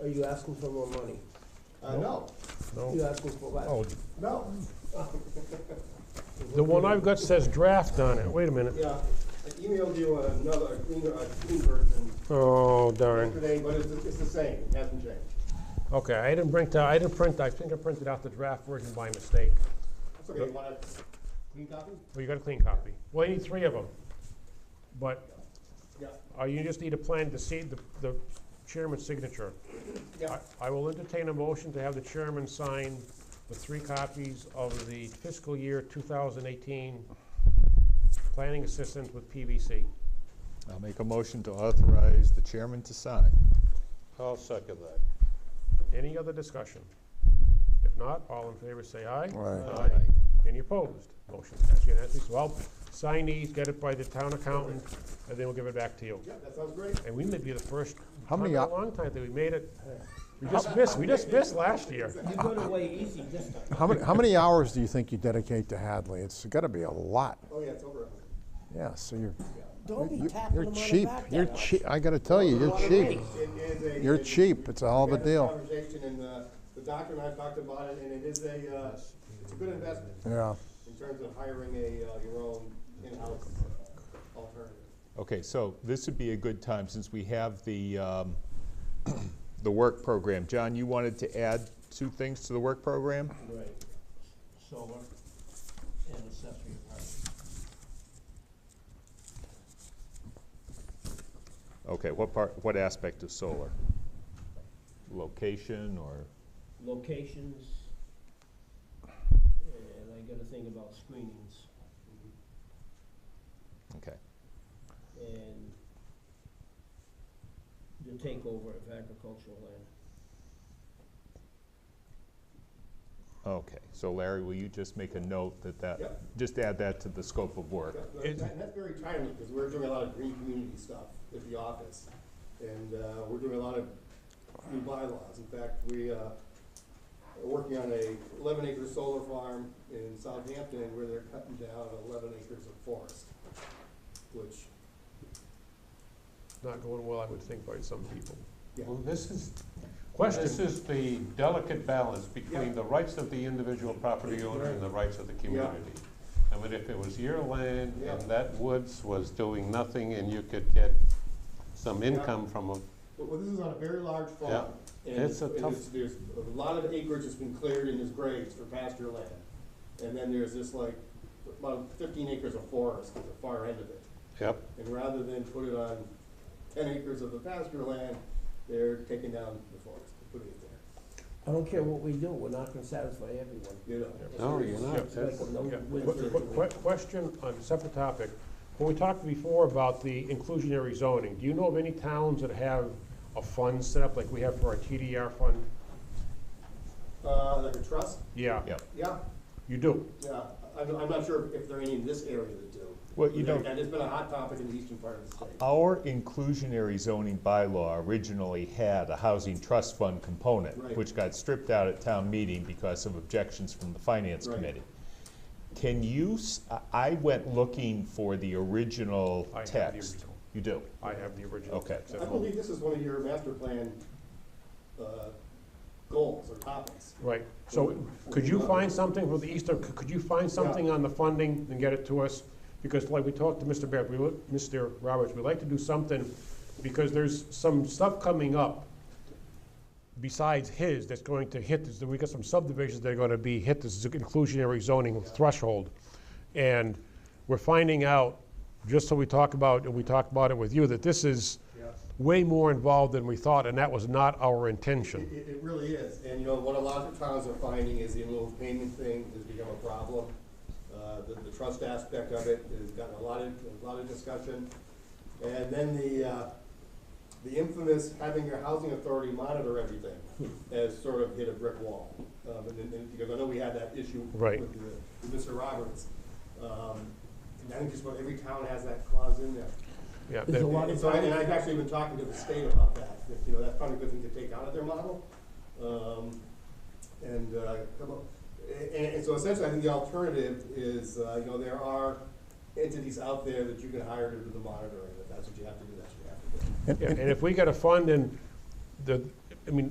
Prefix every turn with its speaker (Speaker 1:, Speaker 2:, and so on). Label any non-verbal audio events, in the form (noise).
Speaker 1: Are you asking for more money?
Speaker 2: Uh, no,
Speaker 1: You asking for what?
Speaker 3: Oh,
Speaker 2: no,
Speaker 3: the one I've got says draft on it, wait a minute.
Speaker 2: yeah, I emailed you another, a cleaner, a clean version
Speaker 3: Oh darn,
Speaker 2: yesterday, but it's, it's the same, it hasn't changed.
Speaker 3: okay, I didn't print, out- I didn't print, I think I printed out the draft version by mistake.
Speaker 2: That's okay, you want a clean copy?
Speaker 3: Well, you got a clean copy. Well, you need three of them. But
Speaker 2: Yeah,
Speaker 3: uh, you just need a plan to see the the chairman's signature.
Speaker 2: yeah,
Speaker 3: I I will entertain a motion to have the chairman sign the three copies of the fiscal year 2018 planning assistance with PVC.
Speaker 4: I'll make a motion to authorize the chairman to sign.
Speaker 5: I'll second that.
Speaker 3: Any other discussion? If not, all in favor say aye.
Speaker 4: Aye.
Speaker 3: Any opposed? Motion passed unanimously. So I'll sign these, get it by the town accountant, and then we'll give it back to you.
Speaker 2: yeah, that sounds great.
Speaker 3: And we may be the first,
Speaker 4: How
Speaker 3: time in
Speaker 4: many
Speaker 3: a
Speaker 4: hou-
Speaker 3: long time that we made it. We just missed, we just missed last year.
Speaker 1: You got away easy this time.
Speaker 4: How many, how many hours do you think you dedicate to Hadley? It's gotta be a lot.
Speaker 2: Oh, yeah, it's over.
Speaker 4: Yeah, so you're,
Speaker 1: Don't be
Speaker 4: you're-
Speaker 1: tapping
Speaker 4: you're
Speaker 1: them on the
Speaker 4: cheap.
Speaker 1: back that
Speaker 4: You're
Speaker 1: much.
Speaker 4: cheap, I gotta tell you, you're
Speaker 2: It
Speaker 4: cheap.
Speaker 2: is a-
Speaker 4: You're
Speaker 2: it-
Speaker 4: cheap, it's a hell of
Speaker 2: we
Speaker 4: a
Speaker 2: had this
Speaker 4: deal.
Speaker 2: Conversation and, uh, the doctor and I have talked about it, and it is a, uh, it's a good investment
Speaker 4: Yeah,
Speaker 2: in terms of hiring a, uh, your own in-house alternative.
Speaker 5: Okay, so this would be a good time, since we have the, um, (clears throat) the work program. John, you wanted to add two things to the work program?
Speaker 1: Right. Solar and accessory apartment.
Speaker 5: Okay, what part, what aspect of solar? Location or,
Speaker 1: Locations, and I gotta think about screenings
Speaker 5: okay,
Speaker 1: and the takeover of agricultural land.
Speaker 5: okay. So Larry, will you just make a note that that,
Speaker 2: Yep.
Speaker 5: just add that to the scope of work?
Speaker 2: Yeah, but that- That's very timely, because we're doing a lot of green community stuff at the office. And uh, we're doing a lot of new bylaws. In fact, we uh, are working on a eleven acre solar farm in Southampton where they're cutting down eleven acres of forest, which,
Speaker 3: Not going well, I would think, by some people.
Speaker 2: yeah.
Speaker 6: Well, this is,
Speaker 3: Question.
Speaker 6: this is the delicate balance
Speaker 2: Yeah.
Speaker 6: between the rights of the individual property owner and the rights of the community. I mean, if it was your land
Speaker 2: Yeah.
Speaker 6: and that woods was doing nothing and you could get some income from it,
Speaker 2: Well, well, this is on a very large farm.
Speaker 6: Yeah.
Speaker 2: and
Speaker 6: It's a
Speaker 2: and
Speaker 6: tough-
Speaker 2: it's- There's a lot of acreage that's been cleared and is grazed for pasture land. And then there's this like, about fifteen acres of forest at the far end of it.
Speaker 6: yep,
Speaker 2: And rather than put it on ten acres of the pasture land, they're taking down the forest and putting it there,
Speaker 1: I don't care what we do, we're not gonna satisfy everyone.
Speaker 2: you know?
Speaker 5: Oh,
Speaker 6: no, you're not.
Speaker 1: It's like a
Speaker 3: Yeah.
Speaker 1: no-win
Speaker 3: Qu- qu-
Speaker 1: situation.
Speaker 3: qu- Question on a separate topic. When we talked before about the inclusionary zoning, do you know of any towns that have a fund set up like we have for our TDR fund?
Speaker 2: Uh, like a trust,
Speaker 3: Yeah,
Speaker 5: Yeah.
Speaker 2: yeah,
Speaker 3: you do.
Speaker 2: yeah, I'm, I'm not sure if there are any in this area that do.
Speaker 5: Well, you don't-
Speaker 2: And it's been a hot topic in the eastern part of the state.
Speaker 5: Our inclusionary zoning bylaw originally had a housing trust fund
Speaker 2: Right.
Speaker 5: component, which got stripped out at town meeting because of objections from the finance
Speaker 2: Right.
Speaker 5: committee. Can you, s- I I went looking for the original
Speaker 3: I have the
Speaker 5: text.
Speaker 3: original.
Speaker 5: You do?
Speaker 3: I have the original
Speaker 5: Okay.
Speaker 3: text at
Speaker 2: I
Speaker 3: home.
Speaker 2: believe this is one of your master plan, uh, goals or topics.
Speaker 3: Right, so could you find something for the Eastern, could could you find something on the funding and get it to us? Because like we talked to Mr. Barrett, we, would- Mr. Roberts, we'd like to do something, because there's some stuff coming up besides his that's going to hit, this. we got some subdivisions that are gonna be hit this inclusionary zoning threshold. And we're finding out, just so we talk about, and we talked about it with you, that this is way more involved than we thought, and that was not our intention.
Speaker 2: It, it really is, and you know, what a lot of towns are finding is the little payment thing has become a problem. Uh, the, the trust aspect of it has gotten a lot of, a lot of discussion. And then the, uh, the infamous having your housing authority monitor everything has sort of hit a brick wall. Um, and, then- and, because I know we had that issue
Speaker 3: Right.
Speaker 2: with, the- with Mr. Roberts. Um, and I think just about every town has that clause in there.
Speaker 3: Yeah,
Speaker 1: There's
Speaker 3: that-
Speaker 1: a lot
Speaker 2: And
Speaker 1: of
Speaker 2: so, I- and I've actually been talking to the state about that, that, you know, that's probably a good thing to take out of their model. Um, And, uh, come up- a- and, and so essentially, I think the alternative is, uh, you know, there are entities out there that you can hire to do the monitoring, if that's what you have to do, that's what you have to do.
Speaker 3: Yeah, And if we got a fund and the, I mean,